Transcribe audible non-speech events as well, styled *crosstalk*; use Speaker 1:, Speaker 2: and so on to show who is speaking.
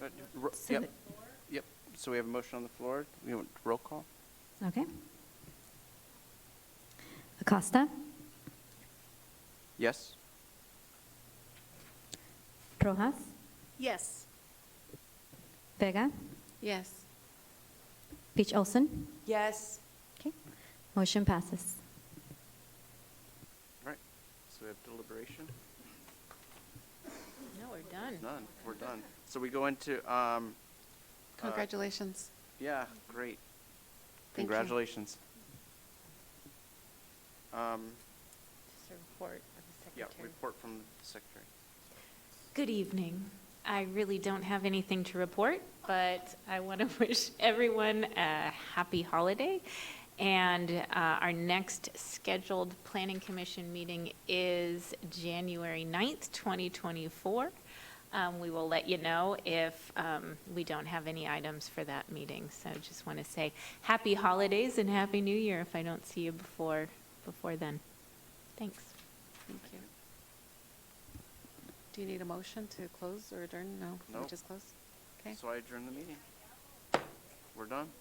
Speaker 1: Uh, ro- Yep,
Speaker 2: Seven.
Speaker 1: yep. So we have a motion on the floor. We want roll call?
Speaker 2: Okay. Acosta,
Speaker 1: Yes?
Speaker 2: Rojas,
Speaker 3: Yes.
Speaker 2: Vega,
Speaker 3: Yes.
Speaker 2: Beach Olson.
Speaker 3: Yes.
Speaker 2: Okay. Motion passes.
Speaker 1: All right. So we have deliberation?
Speaker 3: No, we're done.
Speaker 1: None. We're done. So we go into, um, uh,
Speaker 3: Congratulations.
Speaker 1: Yeah, great.
Speaker 3: Thank you.
Speaker 1: Congratulations. Um,
Speaker 3: Just a report of the
Speaker 1: yeah,
Speaker 3: secretary.
Speaker 1: report from the secretary.
Speaker 4: Good evening. I really don't have anything to report, but I want to *laughs* wish everyone a happy holiday. And uh, our next scheduled Planning Commission meeting is January 9th, 2024. Um, We will let you know if um, we don't have any items for that meeting. So just want to say happy holidays and happy new year if I don't see you before, before then. Thanks.
Speaker 3: Thank you. Do you need a motion to close or adjourn? No? we
Speaker 1: Nope.
Speaker 3: Just close? Okay.
Speaker 1: So I adjourn the meeting. We're done.